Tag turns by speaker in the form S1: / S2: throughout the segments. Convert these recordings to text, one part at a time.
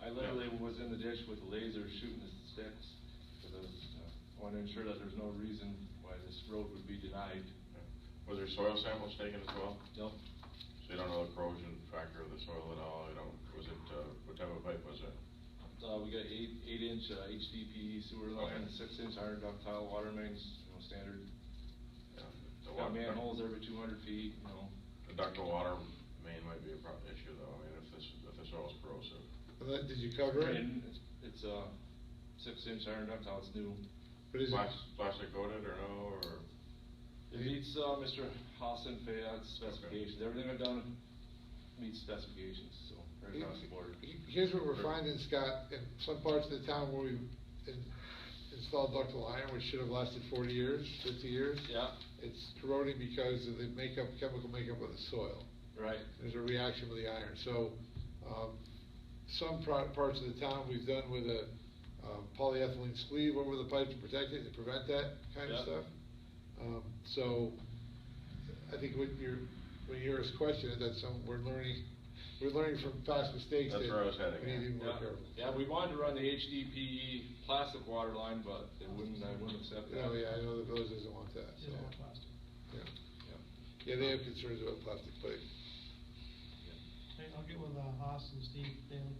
S1: I literally was in the ditch with a laser shooting the sticks, because I was, uh, I wanted to ensure that there's no reason why this road would be denied.
S2: Was there soil samples taken as well?
S1: Nope,
S2: So you don't know the corrosion factor of the soil at all, you don't, was it, uh, what type of pipe was it?
S1: uh, we got eight, eight inch uh, HDPE sewer line,
S2: Okay.
S1: six inch iron ductile water mains, you know, standard.
S2: Yeah, the
S1: Got
S2: water-
S1: manholes every two hundred feet, you know.
S2: The ductile water main might be a problem issue though, I mean, if this, if the soil's corrosive.
S3: Well, that- Did you cover it?
S1: And it's, it's, uh, six inch iron ductile, it's new.
S3: But is it,
S2: Plas- Plastic coated or no, or?
S1: It meets, uh, Mr. Hassan Fayad's specifications, everything I've done meets specifications, so, right across the board.
S3: he- here's what we're finding, Scott, in some parts of the town where we in- installed ductile iron, which should have lasted forty years, fifty years.
S1: Yeah,
S3: It's corroding because of the makeup, chemical makeup of the soil.
S1: right,
S3: There's a reaction with the iron, so, um, some pro- parts of the town we've done with a um, polyethylene sleeve over the pipe to protect it, to prevent that kind
S1: Yeah.
S3: of stuff. Um, so, I think what you're, when you hear us question, it, that's some, we're learning, we're learning from past mistakes that
S2: That's where I was heading,
S3: we need to
S2: yeah.
S3: be more
S1: yeah,
S3: careful.
S1: yeah, we wanted to run the HDPE plastic E water line, but they wouldn't, I wouldn't accept that.
S3: Oh, yeah, I know the village doesn't want that, so, yeah.
S1: Yeah.
S3: Yeah, they have concerns about plastic plate.
S4: Okay, I'll get with, uh, Haas and Steve Daly.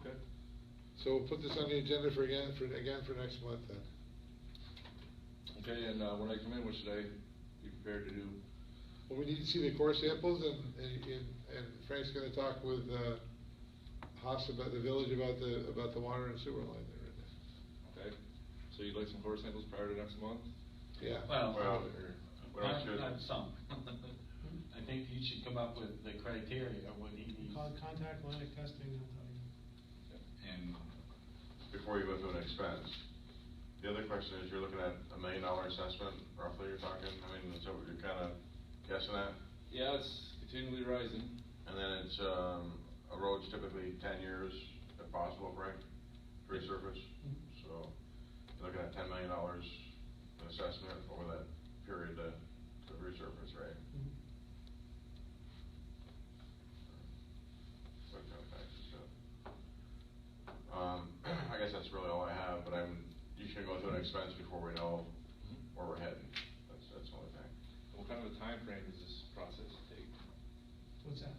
S1: Okay,
S3: So we'll put this on the agenda for again, for, again for next month then.
S1: okay, and, uh, when I come in, what should I be prepared to do?
S3: Well, we need to see the core samples and, and, and Frank's gonna talk with, uh, Haas about the village, about the, about the water and sewer line there.
S1: Okay, so you'd like some core samples prior to next month?
S3: Yeah.
S5: Well,
S2: Well,
S1: or-
S2: we don't
S5: not,
S2: shoot-
S5: not some. I think he should come up with the criteria of what he needs.
S4: Call, contact Atlantic Testing, they'll tell you.
S5: And
S2: Before you go to an expense, the other question is, you're looking at a million dollar assessment, roughly you're talking, I mean, so you're kinda guessing at?
S1: Yeah, it's continually rising,
S2: And then it's, um, a road's typically ten years, if possible, right, to resurface?
S4: Mhm.
S2: So, you're looking at ten million dollars in assessment over that period to, to resurface, right?
S3: Mm-hmm.
S4: Mhm.
S2: What kind of taxes, so. Um, I guess that's really all I have, but I'm, you should go through an expense before we know where we're heading, that's, that's the only thing.
S1: what kind of a time frame does this process take?
S4: What's that?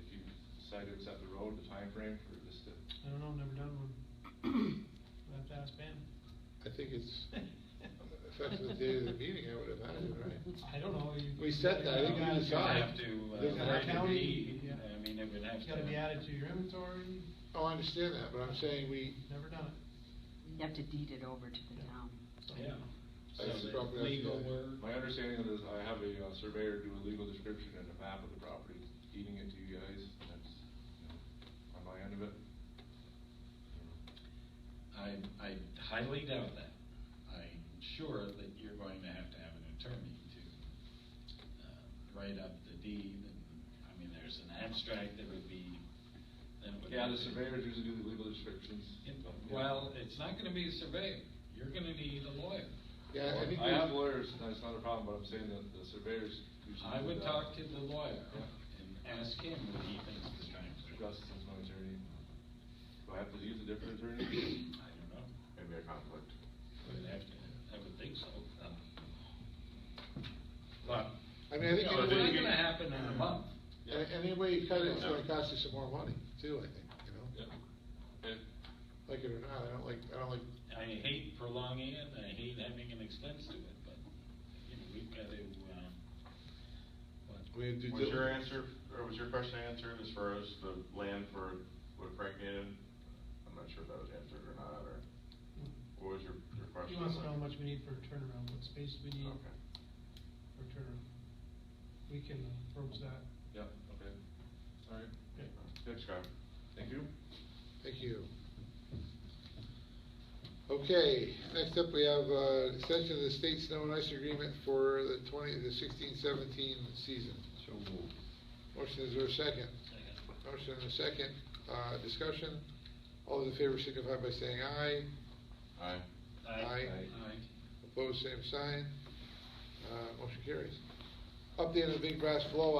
S1: If you decide to accept the road, the time frame for this to?
S4: I don't know, I've never done one. I have to ask Ben.
S3: I think it's effective the day of the meeting, I would imagine, right?
S4: I don't know. you-
S3: We set that, I think we
S4: you
S5: you'd
S3: decide.
S5: have to, uh,
S3: There's an
S5: write a
S4: account.
S5: deed.
S4: Yeah.
S5: I mean, it would have to.
S4: It's gotta be added to your inventory,
S3: Oh, I understand that, but I'm saying we,
S4: never done it.
S6: You have to deed it over to the
S4: Yeah.
S6: town.
S4: so.
S5: Yeah.
S3: I
S5: So
S3: just
S5: the
S3: probably have to-
S5: legal word.
S1: My understanding is I have a uh, surveyor do a legal description and a map of the property, deeding it to you guys, and that's, you know, on my end of it.
S5: I, I highly doubt that. I'm sure that you're going to have to have an attorney to uh, write up the deed, and, I mean, there's an abstract that would be, then it would.
S1: Yeah,
S5: have
S1: the
S5: to-
S1: surveyors usually do the legal descriptions.
S5: Yeah,
S1: but, yeah.
S5: Well, it's not gonna be a surveyor, you're gonna need a lawyer.
S3: yeah, I think.
S1: I
S3: we-
S1: have lawyers, that's not a problem, but I'm saying that the surveyors usually.
S5: I
S1: do
S5: would
S1: that.
S5: talk to the lawyer and ask him what he thinks the time frame.
S1: Gus is my attorney. Do I have to use a different attorney?
S5: I don't know,
S2: Maybe a conflict.
S5: I would have to, I would think so. um, But,
S3: I mean, I
S5: you
S3: think. in a
S5: know, it's
S3: way-
S5: not gonna happen in a month.
S3: And, and anyway, you cut it, it's gonna cost you some more money too, I think, you know?
S1: Yeah. Okay.
S3: Like it or not, I don't like, I don't like,
S5: I hate prolonging it, I hate having an expense to it, but, you know, we've got to, um,
S3: we
S5: what,
S3: have to. do
S2: Was your
S3: diligence.
S2: answer, or was your question answered as far as the land for what Frank needed? I'm not sure if that was answered or not, or what was your, your question?
S4: He wants to know how much we need for a turnaround, what space we need
S2: Okay.
S4: for a turnaround. We can approach that.
S1: Yeah, okay. All right.
S4: Okay.
S2: Thanks, Scott.
S1: Thank you.
S3: Thank you. Okay, next up, we have, uh, extension of the state snow and ice agreement for the twenty, the sixteen seventeen season.
S5: so moved.
S3: Motion is there a second? Motion and a second, uh, discussion. All those in favor signify by saying aye.
S2: Aye.
S3: Aye.
S5: Aye.
S3: Opposed, same sign. Uh, motion carries. Update on the Big Brass Blowout